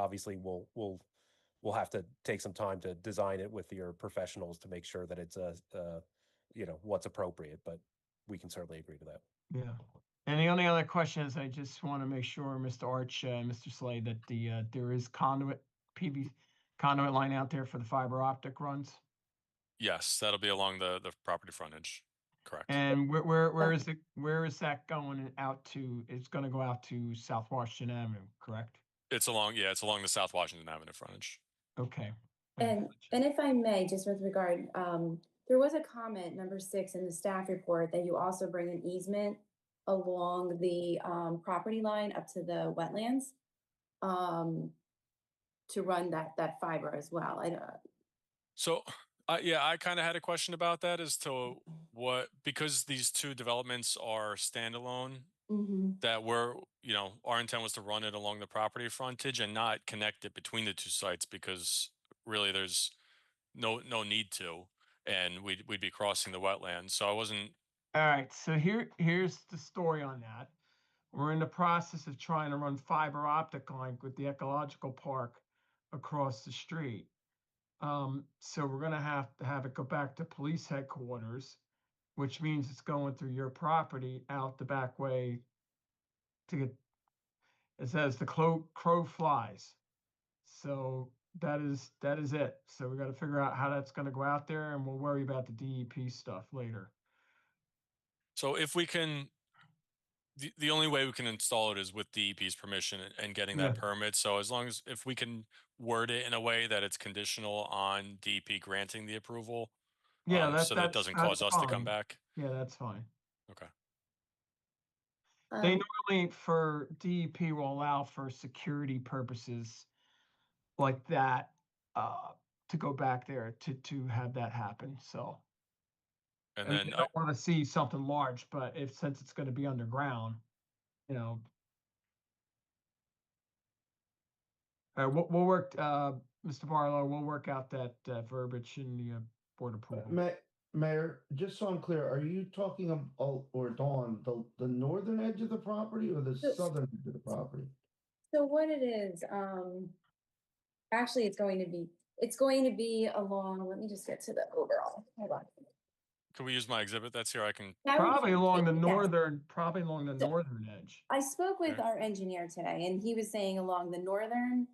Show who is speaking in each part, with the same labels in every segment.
Speaker 1: obviously we'll, we'll, we'll have to take some time to design it with your professionals to make sure that it's a, uh, you know, what's appropriate, but we can certainly agree to that.
Speaker 2: Yeah. And the only other question is I just want to make sure, Mr. Arch, uh, Mr. Slade, that the, uh, there is conduit, PV conduit line out there for the fiber optic runs.
Speaker 3: Yes, that'll be along the, the property frontage, correct?
Speaker 2: And where, where, where is it, where is that going out to? It's going to go out to South Washington Avenue, correct?
Speaker 3: It's along, yeah, it's along the South Washington Avenue frontage.
Speaker 2: Okay.
Speaker 4: And, and if I may, just with regard, um, there was a comment, number six, in the staff report that you also bring an easement along the, um, property line up to the wetlands, um, to run that, that fiber as well. I, don't-
Speaker 3: So, I yeah, I kind of had a question about that as to what, because these two developments are standalone,
Speaker 2: Mm-hmm.
Speaker 4: Mhm.
Speaker 3: that we're, you know, our intent was to run it along the property frontage and not connect it between the two sites because really there's no, no need to. And we'd, we'd be crossing the wetland. So I wasn't,
Speaker 2: All right, so here, here's the story on that. We're in the process of trying to run fiber optic line with the ecological park across the street. Um, so we're gonna have to have it go back to police headquarters, which means it's going through your property out the back way to get, it says the crow, crow flies. So that is, that is it. So we gotta figure out how that's gonna go out there and we'll worry about the DEP stuff later.
Speaker 3: so if we can, the, the only way we can install it is with DEP's permission and- and getting that permit. So as long as, if we can word it in a way that it's conditional on DEP granting the approval.
Speaker 2: Yeah,
Speaker 3: um,
Speaker 2: that,
Speaker 3: So that doesn't cause us to come back.
Speaker 2: Yeah, that's fine. They
Speaker 4: Um,
Speaker 2: normally for DEP will allow for security purposes like that uh, to go back there to to have that happen. So
Speaker 3: And
Speaker 2: I mean,
Speaker 3: then uh,
Speaker 2: they
Speaker 3: I-
Speaker 2: don't want to see something large, but if since it's going to be underground, you know. All right, we'll, we'll work, uh, Mr. Barlow, we'll work out that uh, verbiage in the uh, board approval.
Speaker 5: Ma- Mayor, just so I'm clear, are you talking of, oh, or Dawn, the, the northern edge of the property or the
Speaker 4: Yes.
Speaker 5: southern edge of the property?
Speaker 4: so what it is, um, actually, it's going to be, it's going to be along, let me just get to the overall. Hold on.
Speaker 3: can we use my exhibit that's here? I can,
Speaker 4: That would
Speaker 2: Probably along the
Speaker 4: yes.
Speaker 2: northern, probably along the
Speaker 4: So-
Speaker 2: northern edge.
Speaker 4: I spoke with
Speaker 3: Okay.
Speaker 4: our engineer today and he was saying along the northern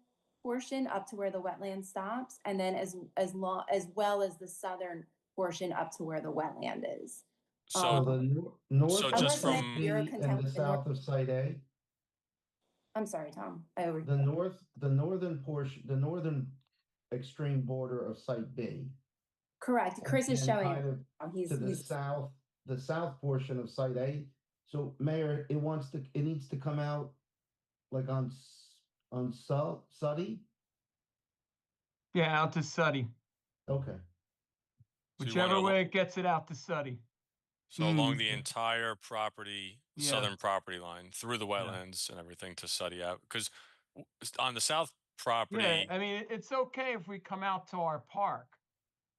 Speaker 4: portion up to where the wetland stops and then as, as long, as well as the southern portion up to where the wetland is.
Speaker 5: So
Speaker 3: so
Speaker 2: Uh,
Speaker 4: Um,
Speaker 5: the nor- north.
Speaker 3: Uh, so
Speaker 5: of
Speaker 3: just
Speaker 5: Site
Speaker 3: from-
Speaker 5: B
Speaker 4: Bureau
Speaker 5: And the
Speaker 4: contempt-
Speaker 5: south of site A,
Speaker 4: I'm sorry, Tom, I over.
Speaker 5: the north, the northern portion, the northern extreme border of site B.
Speaker 4: Correct, Chris is
Speaker 5: and
Speaker 4: showing,
Speaker 5: kind
Speaker 4: it
Speaker 5: of
Speaker 4: now. he's,
Speaker 5: To the
Speaker 4: he's,
Speaker 5: south, the south portion of site A. So Mayor, it wants to, it needs to come out like on, S- on Su- Suddy?
Speaker 2: Yeah, out to Suddy.
Speaker 5: Okay.
Speaker 3: So you wanna
Speaker 2: Whichever
Speaker 3: lo-
Speaker 2: way it gets it out to Suddy.
Speaker 3: so along
Speaker 2: Mm.
Speaker 3: the entire property,
Speaker 2: Yeah.
Speaker 3: southern property line, through the wetlands and everything to Suddy out, because on the south
Speaker 2: Yeah,
Speaker 3: property,
Speaker 2: I mean, it- it's okay if we come out to our park.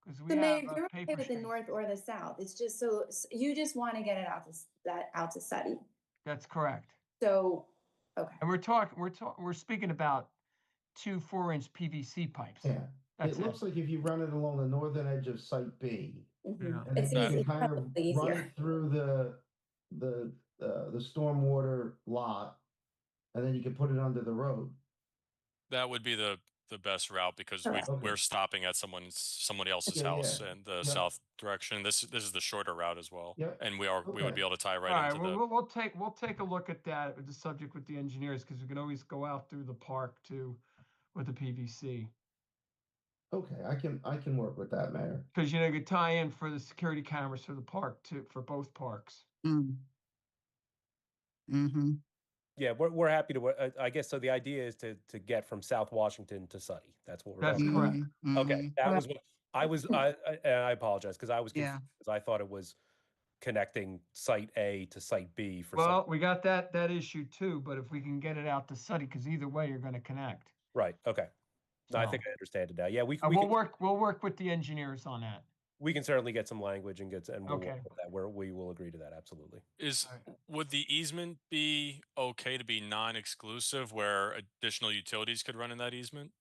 Speaker 2: Because we
Speaker 4: the mayor,
Speaker 2: have
Speaker 4: you're
Speaker 2: a
Speaker 4: okay
Speaker 2: paper
Speaker 4: with the
Speaker 2: street.
Speaker 4: north or the south, it's just so, s- you just want to get it out to, s- that, out to Suddy.
Speaker 2: That's correct.
Speaker 4: So, okay,
Speaker 2: And we're talking, we're talking, we're speaking about two four inch PVC pipes.
Speaker 5: Yeah,
Speaker 2: That's
Speaker 5: it looks like if you run it along the northern edge of site B,
Speaker 4: mhm.
Speaker 5: and
Speaker 4: it's
Speaker 5: then you
Speaker 4: easy,
Speaker 5: can kind of
Speaker 4: probably
Speaker 5: run
Speaker 4: easier.
Speaker 5: it through the, the, uh, the stormwater lot. And then you can put it under the road.
Speaker 3: that would be the, the best route because we,
Speaker 4: Correct.
Speaker 5: Okay.
Speaker 3: we're stopping at someone's, somebody else's
Speaker 5: Yeah,
Speaker 3: house
Speaker 5: yeah.
Speaker 3: and the
Speaker 5: Yep.
Speaker 3: south direction. This, this is the shorter route as well.
Speaker 5: Yep.
Speaker 3: And we are, we would
Speaker 5: Okay.
Speaker 3: be able to tie
Speaker 2: All
Speaker 3: right
Speaker 2: right,
Speaker 3: into
Speaker 2: well,
Speaker 3: the,
Speaker 2: we'll, we'll take, we'll take a look at that, with the subject with the engineers, because we can always go out through the park too with the PVC.
Speaker 5: Okay, I can, I can work with that, Mayor.
Speaker 2: Because, you know, you could tie in for the security cameras for the park too, for both parks.
Speaker 6: Mm-hmm.
Speaker 1: Yeah, we're, we're happy to, wo- uh, I guess, so the idea is to, to get from South Washington to Suddy. That's what we're.
Speaker 2: That's
Speaker 1: talking about.
Speaker 2: correct. Mm-hmm.
Speaker 1: Okay, that
Speaker 6: Well-
Speaker 1: was what, I was, I, I- and I apologize, because I was
Speaker 6: Yeah.
Speaker 1: confused, 'cause I thought it was connecting site A to site B for
Speaker 2: Well,
Speaker 1: some,
Speaker 2: we got that, that issue too, but if we can get it out to Suddy, because either way, you're gonna connect.
Speaker 1: right, okay. No, I
Speaker 2: So-
Speaker 1: think I understand it now. Yeah, we,
Speaker 2: And
Speaker 1: we
Speaker 2: Oh. Uh, we'll
Speaker 1: can,
Speaker 2: work, we'll work with the engineers on that.
Speaker 1: We can certainly get some language and get, and we'll,
Speaker 2: Okay.
Speaker 1: work with that, where we will agree to that, absolutely.
Speaker 3: Is,
Speaker 2: Alright.
Speaker 3: would the easement be okay to be non-exclusive where additional utilities could run in that easement?